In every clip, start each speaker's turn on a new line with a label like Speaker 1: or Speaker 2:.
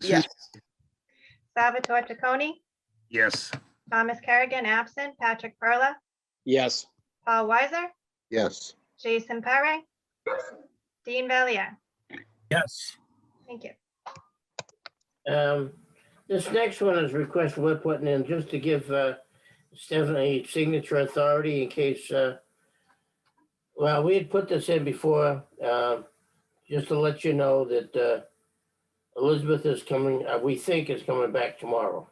Speaker 1: Yes.
Speaker 2: Salvatore Tacconi,
Speaker 3: Yes.
Speaker 2: Thomas Kerrigan, absent, Patrick Perla,
Speaker 4: Yes.
Speaker 2: Paul Weiser,
Speaker 1: Yes.
Speaker 2: Jason Pare, Dean Valier.
Speaker 5: Yes.
Speaker 2: Thank you.
Speaker 5: Um, This next one is request we're putting in just to give uh, Stephanie signature authority in case, uh, well, we had put this in before, um, just to let you know that uh, Elizabeth is coming, uh, we think is coming back tomorrow.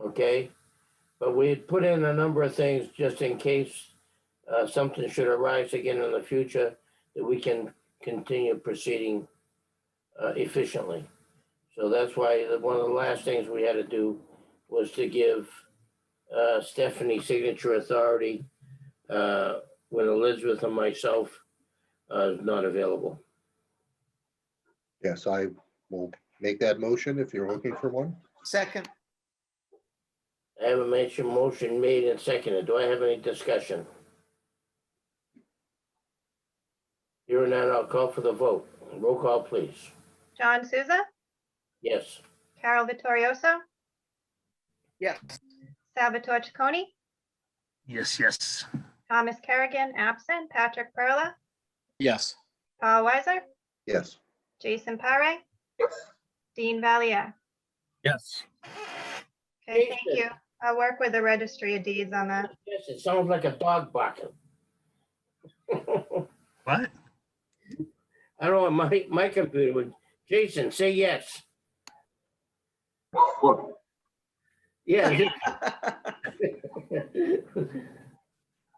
Speaker 5: Okay? But we had put in a number of things just in case uh, something should arise again in the future that we can continue proceeding uh, efficiently. So that's why the- one of the last things we had to do was to give uh, Stephanie signature authority uh, when Elizabeth and myself uh, is not available.
Speaker 1: Yes, I will make that motion if you're looking for one.
Speaker 6: Second,
Speaker 5: I have a mention motion made and seconded. Do I have any discussion? Hearing none, I'll call for the vote. Roll call, please.
Speaker 2: John Souza,
Speaker 5: Yes.
Speaker 2: Carol Vittorioso,
Speaker 6: yes.
Speaker 2: Salvatore Tacconi,
Speaker 3: Yes, yes.
Speaker 2: Thomas Kerrigan, absent, Patrick Perla,
Speaker 4: Yes.
Speaker 2: Paul Weiser,
Speaker 1: Yes.
Speaker 2: Jason Pare, Dean Valier.
Speaker 5: Yes.
Speaker 2: Okay,
Speaker 5: Jason.
Speaker 2: thank you. I'll work with the registry of deeds on that.
Speaker 5: Yes, it sounds like a dog barking.
Speaker 3: What?
Speaker 5: I don't know, my, my computer would, Jason, say yes. Yeah.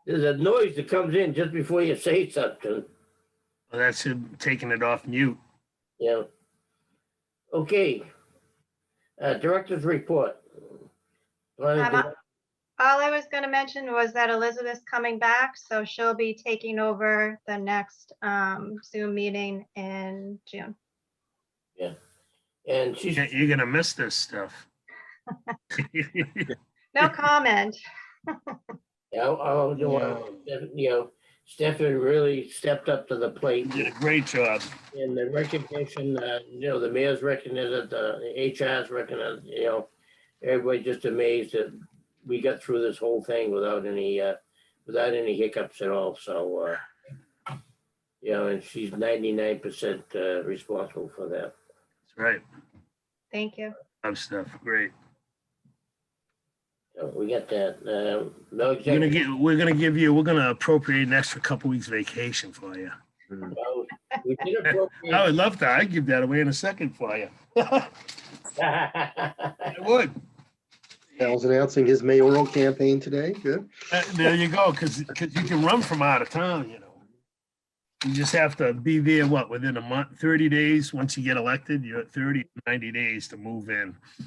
Speaker 5: There's a noise that comes in just before you say something,
Speaker 3: Well, that's him taking it off mute.
Speaker 5: Yeah. Okay. Uh, director's report. Planning
Speaker 2: I'm up.
Speaker 5: director,
Speaker 2: All I was going to mention was that Elizabeth's coming back, so she'll be taking over the next um, Zoom meeting in June.
Speaker 5: And she's,
Speaker 3: You're you're gonna miss this stuff.
Speaker 2: No comment.
Speaker 5: I, I, oh, you know, Stephanie really stepped up to the plate.
Speaker 3: You did a great job.
Speaker 5: And the recognition, uh, you know, the mayor's recognized, the HR's recognized, you know, everybody just amazed that we got through this whole thing without any, uh, without any hiccups at all, so, uh, you know, and she's ninety-nine percent, uh, responsible for that.
Speaker 3: That's right.
Speaker 2: Thank you.
Speaker 3: Love stuff. Great.
Speaker 5: So we got that, um, no
Speaker 3: We're gonna
Speaker 5: executive,
Speaker 3: get, we're gonna give you, we're gonna appropriate an extra couple weeks vacation for you. Oh,
Speaker 5: no, we did appropriate-
Speaker 3: I would love to. I'd give that away in a second for you. I would.
Speaker 1: Al's announcing his mayoral campaign today. Good.
Speaker 3: Uh, There you go, because, because you can run from out of town, you know. You just have to be there, what, within a month, 30 days? Once you get elected, you're at 30, 90 days to move in.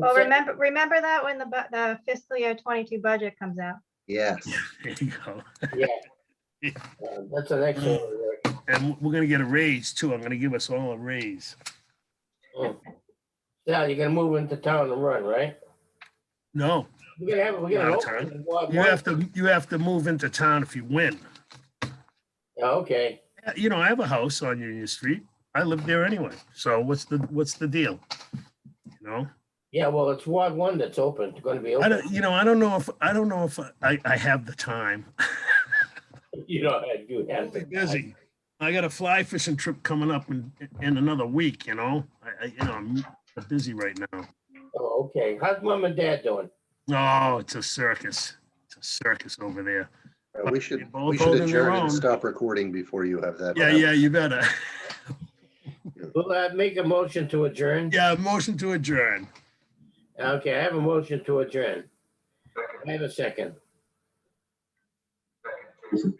Speaker 2: Well, remember, remember that when the bu- the fiscal year 22 budget comes out.
Speaker 1: Yes.
Speaker 3: There you go.
Speaker 5: Yeah. Uh, That's an
Speaker 3: Mm.
Speaker 5: excellent,
Speaker 3: And we're gonna get a raise too. I'm gonna give us all a raise.
Speaker 5: now you're gonna move into town and run, right?
Speaker 3: No,
Speaker 5: We're gonna have, we're gonna.
Speaker 3: Not a
Speaker 5: open
Speaker 3: ton.
Speaker 5: and walk
Speaker 3: you have to, you have to move into town if you win.
Speaker 5: Yeah, Oh, Okay,
Speaker 3: Uh, You know, I have a house on Union Street. I live there anyway. So what's the, what's the deal? You know?
Speaker 5: yeah, well, it's Ward One that's open, it's gonna be
Speaker 3: I
Speaker 5: open.
Speaker 3: don't, you know, I don't know if, I don't know if I, I have the time.
Speaker 5: You know, you have.
Speaker 3: Really busy. I got a fly fishing trip coming up in, in another week, you know? I, I, you know, I'm busy right now.
Speaker 5: Oh, okay, how's mom and dad doing?
Speaker 3: Oh, it's a circus. It's a circus over there.
Speaker 1: Uh, We should,
Speaker 3: They're both
Speaker 1: we should
Speaker 3: holding their
Speaker 1: adjourn
Speaker 3: own.
Speaker 1: and stop recording before you have that.
Speaker 3: Yeah, yeah, you better.
Speaker 5: Well, I make a motion to adjourn.
Speaker 3: Yeah, motion to adjourn.
Speaker 5: Okay, I have a motion to adjourn. I have a second.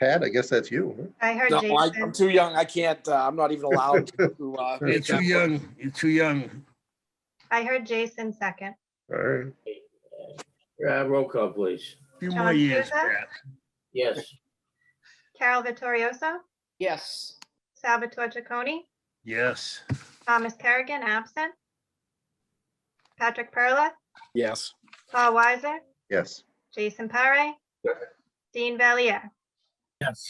Speaker 1: Pat, I guess that's you. huh?
Speaker 2: I heard
Speaker 4: No, I-
Speaker 2: Jason.
Speaker 4: I'm too young. I can't, uh, I'm not even allowed to. uh,
Speaker 3: You're
Speaker 4: make
Speaker 3: too
Speaker 4: that-
Speaker 3: young. You're too young.
Speaker 2: I heard Jason second.
Speaker 1: All right.
Speaker 5: Uh, roll call, please.
Speaker 3: Few
Speaker 2: John
Speaker 3: more years.
Speaker 2: Souza?
Speaker 3: Pat.
Speaker 5: Yes,
Speaker 2: Carol Vittorioso,
Speaker 6: Yes.
Speaker 2: Salvatore Tacconi,
Speaker 3: Yes.
Speaker 2: Thomas Kerrigan, absent. Patrick Perla,
Speaker 4: Yes.
Speaker 2: Paul Weiser,
Speaker 1: Yes.
Speaker 2: Jason Pare, Dean Valier.
Speaker 5: yes.